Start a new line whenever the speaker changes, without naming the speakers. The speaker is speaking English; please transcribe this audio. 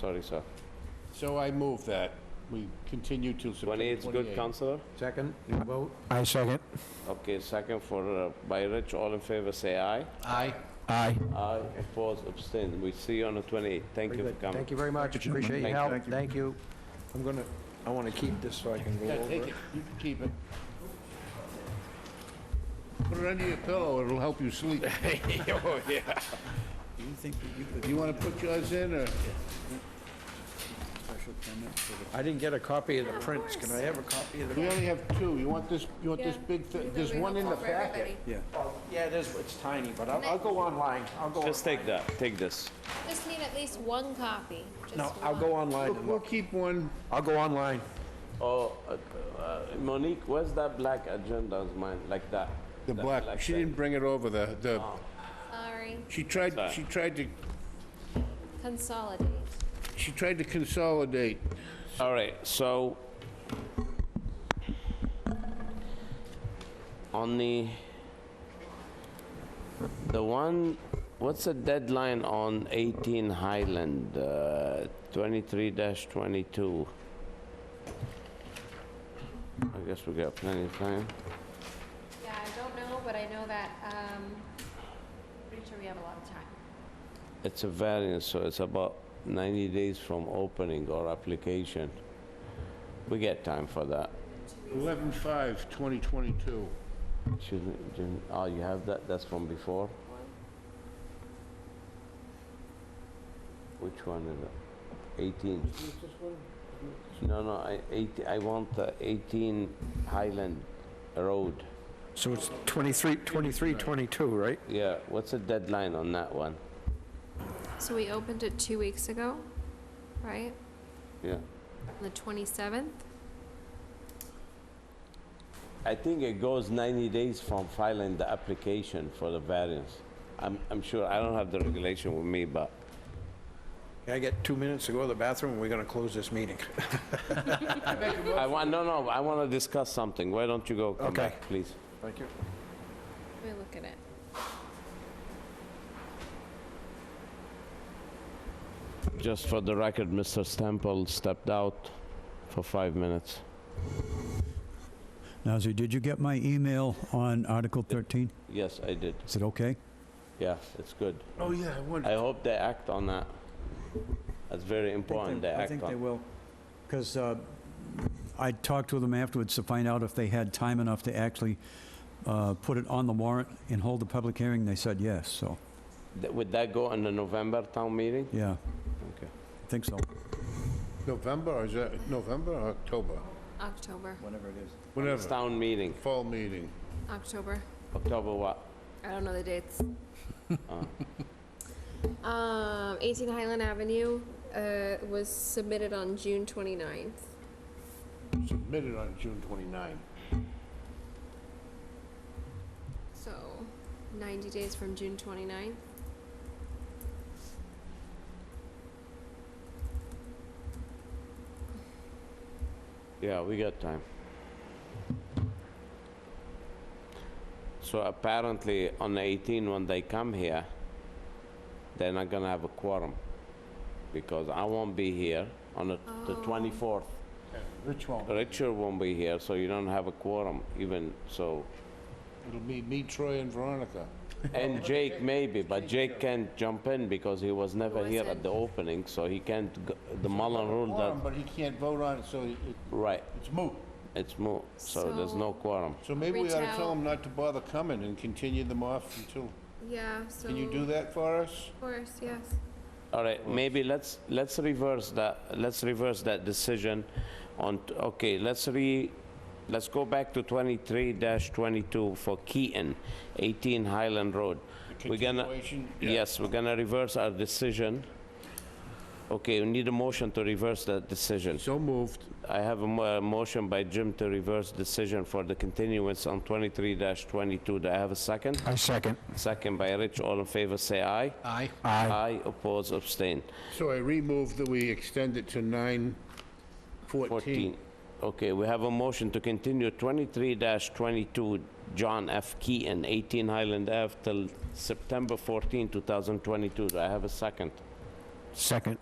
Sorry, sir.
So I move that we continue till September
28 is good,
28th.
Counselor?
Second, vote?
I second.
Okay, second for, uh, by Rich, all in favor, say aye.
Aye.
Aye.
Aye, opposed, abstain. We see you on the 28th. Thank you
Very
for
good.
coming.
Thank you very much. Appreciate your
Thank you.
help. Thank you. I'm gonna, I wanna keep this so I can go
Yeah,
over
take
it.
it, you can keep it. Put it under your pillow, it'll help you sleep. Oh, yeah. You wanna put yours in, or?
I didn't get a copy of the prints. Can I have a copy of the?
We only have two, you want this, you want this big, thi- there's one in the packet.
Yeah, it is, it's tiny, but I'll, I'll go online. I'll go, on-
Just take that, take this.
Just need at least one copy. Just
no, I'll
one.
go online
We'll
and
we'll
look.
keep one,
I'll go online.
Oh, uh, uh, Monique, where's that black agenda of mine, like that?
the
That Oh,
black, she
thing.
didn't bring it over, the, the,
Sorry.
she tried,
Sorry.
she tried to,
Consolidate.
she tried to consolidate.
All right, so on the the one, what's the deadline on 18 Highland, uh, 23-22? I guess we got plenty of time.
Yeah, I don't know, but I know that, um, pretty sure we have a lot of time.
It's a variance, so it's about 90 days from opening or application. We get time for that.
11/5, 2022.
Shouldn't, didn't- oh, you have that, that's from before? Which one is it? 18? No, no, I, 18, I want the 18 Highland Road.
So it's 23, 23, 22, right?
Yeah, what's the deadline on that one?
So we opened it two weeks ago, right?
Yeah.
On the 27th?
I think it goes 90 days from filing the application for the variance. I'm, I'm sure, I don't have the regulation with me, but
I get two minutes to go to the bathroom, and we're gonna close this meeting.
I want, no, no, I want to discuss something. Why don't you go, come
Okay.
back, please?
Thank you.
Let me look at it.
Just for the record, Mr. Stemple stepped out for five minutes.
Nazir, did you get my email on Article 13?
Yes, I did.
Is it okay?
Yeah, it's good.
Oh, yeah, I wonder.
I hope they act on that. That's very important, they
I
act
think they
on.
will, because I talked with them afterwards to find out if they had time enough to actually uh, put it on the warrant and hold the public hearing. They said yes, so,
Th- Would that go in the November town meeting?
yeah,
Okay.
I think so.
November, or is that November or October?
October,
It's
Whatever,
town meeting,
fall meeting.
October.
October what?
I don't know the dates.
Uh.
Um, 18 Highland Avenue, uh, was submitted on June 29th.
Submitted on June 29.
So 90 days from June 29th.
Yeah, we got time. So apparently, on the 18, when they come here, they're not gonna have a quorum, because I won't be here on the- the 24th.
Rich won't.
Richard won't be here, so you don't have a quorum even, so,
It'll be me, Troy, and Veronica.
and Jake maybe, but Jake can't jump in because he was never here at the opening, so he can't, go- the Mullen rule
Quorum,
that,
but he can't vote on it, so it- it-
right,
it's moot.
it's moot, so there's no
So-
quorum.
So maybe we ought to
Reach
tell
out.
him not to bother coming and continue them off until,
Yeah, so.
can you do that for us?
Of course, yes.
All right, maybe let's, let's reverse that, let's reverse that decision on, t- okay, let's re, let's go back to 23-22 for Keaton, 18 Highland Road. We're gonna,
Continuation, yeah.
yes, we're gonna reverse our decision. Okay, we need a motion to reverse that decision.
So moved.
I have a mo- a motion by Jim to reverse decision for the continuance on 23-22. Do I have a second?
I second.
Second by Rich, all in favor, say aye.
Aye.
Aye. oppose, abstain.
So I remove that we extend it to 9/14.
14. Okay, we have a motion to continue 23-22, John F. Keaton, 18 Highland Ave, till September 14, 2022. Do I have a second?
Second.